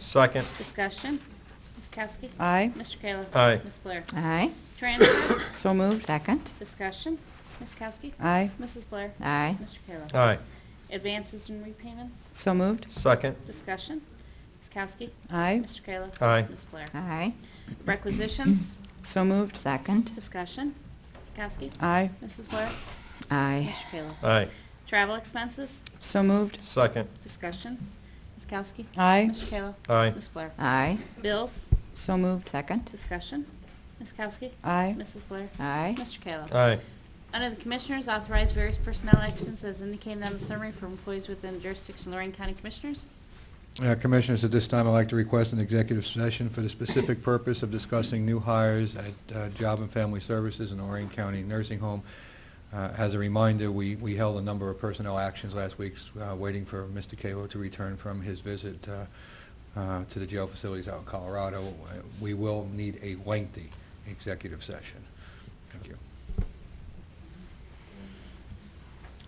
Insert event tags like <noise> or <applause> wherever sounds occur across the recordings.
Second. Discussion. Ms. Kowski? Aye. Mr. Kayla? Aye. Ms. Blair? Aye. Transfers. So moved. Second. Discussion. Ms. Kowski? Aye. Mrs. Blair? Aye. Mr. Kayla? Aye. Advances and repayments. So moved. Second. Discussion. Ms. Kowski? Aye. Mr. Kayla? Aye. Ms. Blair? Aye. Requisitions. So moved. Second. Discussion. Ms. Kowski? Aye. Mrs. Blair? Aye. Mr. Kayla? Aye. Travel expenses. So moved. Second. Discussion. Ms. Kowski? Aye. Mr. Kayla? Aye. Ms. Blair? Aye. Bills. So moved. Second. Discussion. Ms. Kowski? Aye. Mrs. Blair? Aye. Mr. Kayla? Aye. Under the Commissioners, authorize various personnel actions as indicated on the summary for employees within jurisdiction of Lorraine County Commissioners. Uh, Commissioners, at this time, I'd like to request an executive session for the specific purpose of discussing new hires at uh, Job and Family Services in Lorraine County Nursing Home. Uh, As a reminder, we we held a number of personnel actions last week, uh, waiting for Mr. Cato to return from his visit uh, uh, to the jail facilities out in Colorado. Uh, We will need a lengthy executive session. Thank you.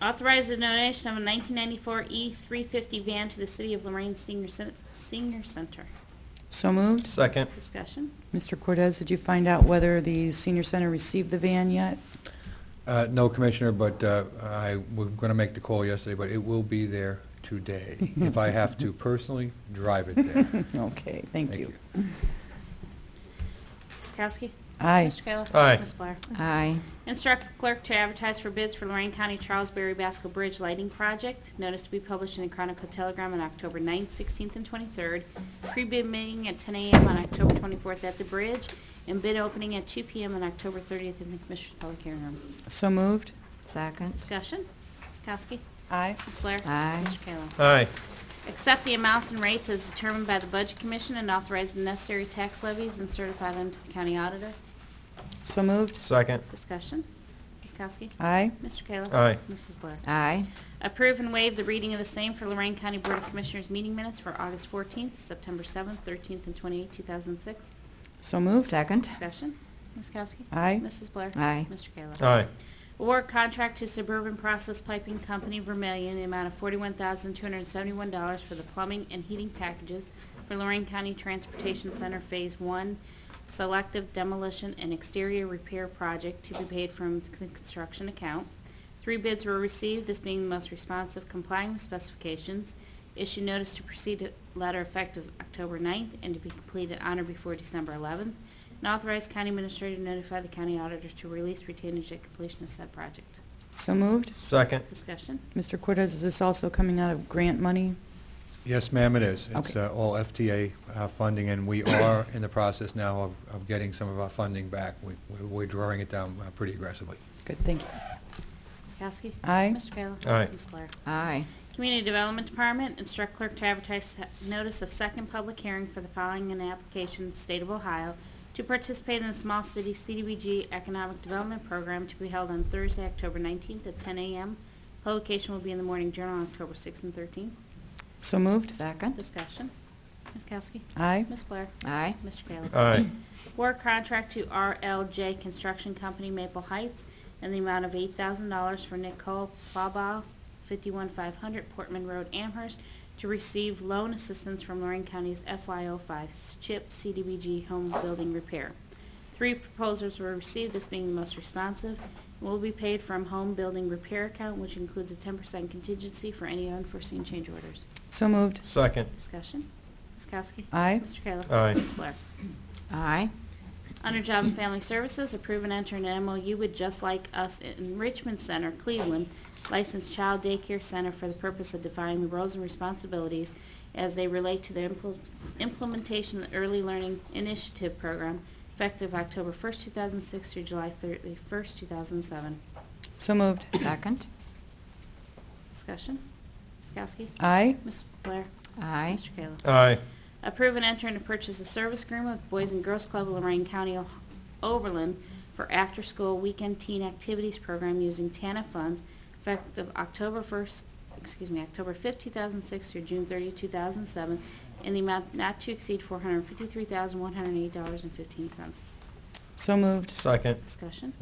Authorize the donation of a 1994 E350 van to the City of Lorraine Senior Cen- Senior Center. So moved. Second. Discussion. Mr. Cortez, did you find out whether the senior center received the van yet? Uh, No, Commissioner, but uh, I was going to make the call yesterday, but it will be there today. If I have to personally drive it <laughs> there. Okay, thank you. Ms. Kowski? Aye. Mr. Kayla? Aye. Ms. Blair? Aye. Instruct the clerk to advertise for bids for Lorraine County Charles Berry Basco Bridge Lighting Project. Notice to be published in the Chronicle Telegram on October 9th, 16th, and 23rd. Pre-bid meeting at 10 a.m. on October 24th at the bridge, and bid opening at 2 p.m. on October 30th in the Commissioners' Public Hearing Room. So moved. Second. Discussion? Ms. Kowski? Aye. Ms. Blair? Aye. Mr. Kayla? Aye. Accept the amounts and rates as determined by the Budget Commission and authorize the necessary tax levies and certify them to the county auditor. So moved. Second. Discussion? Ms. Kowski? Aye. Mr. Kayla? Aye. Mrs. Blair? Aye. Approve and waive the reading of the same for Lorraine County Board of Commissioners meeting minutes for August 14th, September 7th, 13th, and 28th, 2006. So moved. Second. Discussion. Ms. Kowski? Aye. Mrs. Blair? Aye. Mr. Kayla? Aye. Award contract to Suburban Process Piping Company Vermillion in the amount of $41,271 for the plumbing and heating packages for Lorraine County Transportation Center Phase 1 Selective Demolition and Exterior Repair Project to be paid from the construction account. Three bids were received, this being the most responsive complying with specifications. Issue notice to proceed letter effective October 9th and to be completed on or before December 11th. And authorize county administrator to notify the county auditor to release retainage at completion of said project. So moved. Second. Discussion. Mr. Cortez, is this also coming out of grant money? Yes, ma'am, it is. It's Okay. uh, all FTA uh, funding, and we are in the process now of- of getting some of our funding back. We- we- We're drawing it down uh, pretty aggressively. Good, thank you. Ms. Kowski? Aye. Mr. Kayla? Aye. Ms. Blair? Aye. Community Development Department instruct clerk to advertise se- notice of second public hearing for the following in application, State of Ohio, to participate in the Small City CDBG Economic Development Program to be held on Thursday, October 19th at 10 a.m. Publication will be in the Morning Journal on October 6th and 13th. So moved. Second. Discussion. Ms. Kowski? Aye. Ms. Blair? Aye. Mr. Kayla? Aye. Award contract to RLJ Construction Company Maple Heights in the amount of $8,000 for Nicole Plaba, 51500 Portman Road, Amherst, to receive loan assistance from Lorraine County's FY05 CHIP CDBG Home Building Repair. Three proposals were received, this being the most responsive, and will be paid from Home Building Repair Account, which includes a 10% contingency for any unforeseen change orders. So moved. Second. Discussion. Ms. Kowski? Aye. Mr. Kayla? Aye. Ms. Blair? Aye. Under Job and Family Services, approve and enter an MOU with Just Like Us Enrichment Center, Cleveland, licensed child daycare center for the purpose of defining the roles and responsibilities as they relate to the impl- implementation of the Early Learning Initiative Program, effective October 1st, 2006 through July 31st, 2007. So <coughs> moved. Second. Discussion? Ms. Kowski? Aye. Ms. Blair? Aye. Mr. Kayla? Aye. Approve and enter into purchase a service agreement with Boys and Girls Club of Lorraine County, O- Oberlin for after-school weekend teen activities program using TANA funds effective October 1st, excuse me, October 5th, 2006 through June 30, 2007, in the amount not to exceed $453,108.15. So moved. Second. Discussion.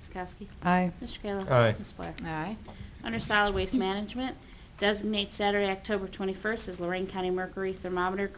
Ms. Kowski? Aye. Mr. Kayla? Aye. Ms. Blair? Aye. Under Solid Waste Management, designate Saturday, October 21st as Lorraine County Mercury Thermometer